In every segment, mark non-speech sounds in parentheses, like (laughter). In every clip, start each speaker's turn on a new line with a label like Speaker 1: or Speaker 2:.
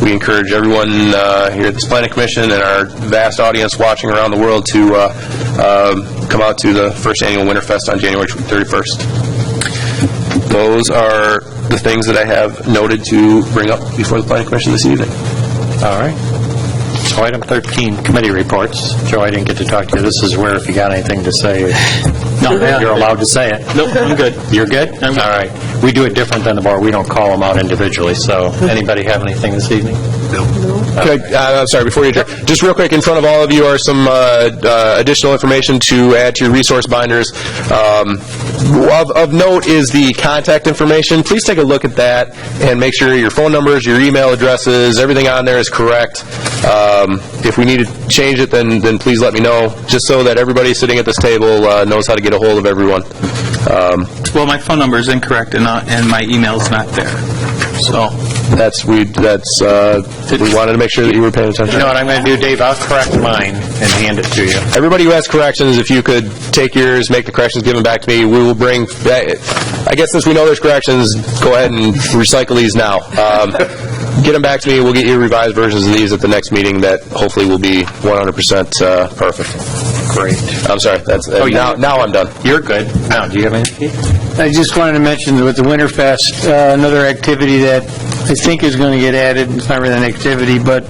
Speaker 1: we encourage everyone uh, here at this planning commission and our vast audience watching around the world to uh, um, come out to the first annual Winterfest on January 31st. Those are the things that I have noted to bring up before the planning commission this evening.
Speaker 2: All right. So item 13, committee reports. Joe, I didn't get to talk to you. This is where if you got anything to say, you're allowed to say it.
Speaker 3: Nope, I'm good.
Speaker 2: You're good? All right. We do it different than the board. We don't call them out individually, so anybody have anything this evening?
Speaker 1: Okay, uh, I'm sorry, before you, just real quick, in front of all of you are some uh, uh, additional information to add to your resource binders. Um, Of of note is the contact information. Please take a look at that and make sure your phone numbers, your email addresses, everything on there is correct. Um, If we need to change it, then, then please let me know, just so that everybody sitting at this table uh, knows how to get a hold of everyone. Um,
Speaker 3: Well, my phone number is incorrect and not, and my email's not there. So,
Speaker 1: That's, we, that's, uh, we wanted to make sure that you were paying attention.
Speaker 2: You know what I'm going to do, Dave? I'll correct mine and hand it to you.
Speaker 1: Everybody who has corrections, if you could take yours, make the corrections, give them back to me, we will bring, I guess since we know there's corrections, go ahead and recycle these now. Um, (laughs) Get them back to me, we'll get you revised versions of these at the next meeting that hopefully will be 100% uh, perfect.
Speaker 2: Great.
Speaker 1: I'm sorry, that's, uh,
Speaker 2: you-
Speaker 1: now now I'm done.
Speaker 2: Oh, You're good. Now, do you have anything?
Speaker 4: I just wanted to mention that with the Winterfest, uh, another activity that I think is going to get added, it's not really an activity, but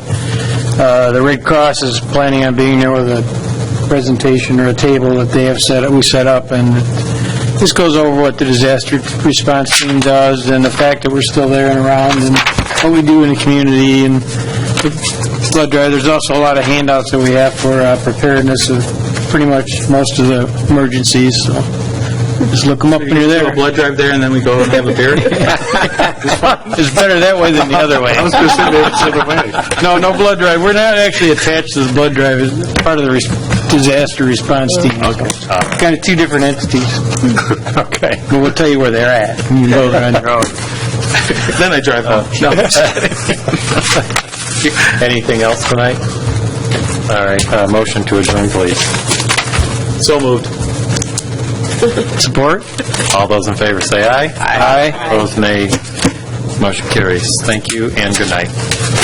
Speaker 4: uh, the Red Cross is planning on being there with a presentation or a table that they have set, we set up, and this goes over what the disaster response team does, and the fact that we're still there and around, and what we do in the community, and the blood drive, there's also a lot of handouts that we have for uh, preparedness of pretty much most of the emergencies, so just look them up when you're
Speaker 3: do
Speaker 4: there.
Speaker 3: a blood drive there, and then we go and have a
Speaker 2: (laughs)
Speaker 3: beer?
Speaker 4: It's better that way than the other way. I was going to say No, no blood drive. We're not actually attached to the blood drive. It's part of the res- disaster response team. Okay. Kind of two different entities,
Speaker 2: (laughs) Okay.
Speaker 4: but we'll tell you where they're at. You can go there on your own.
Speaker 3: Oh. Then I drive home.
Speaker 2: Anything else tonight? All right, uh, motion to adjourn, please.
Speaker 3: So moved.
Speaker 4: Support?
Speaker 2: All those in favor say aye. Aye. Opposed, nay. Motion carries. Thank you and good night.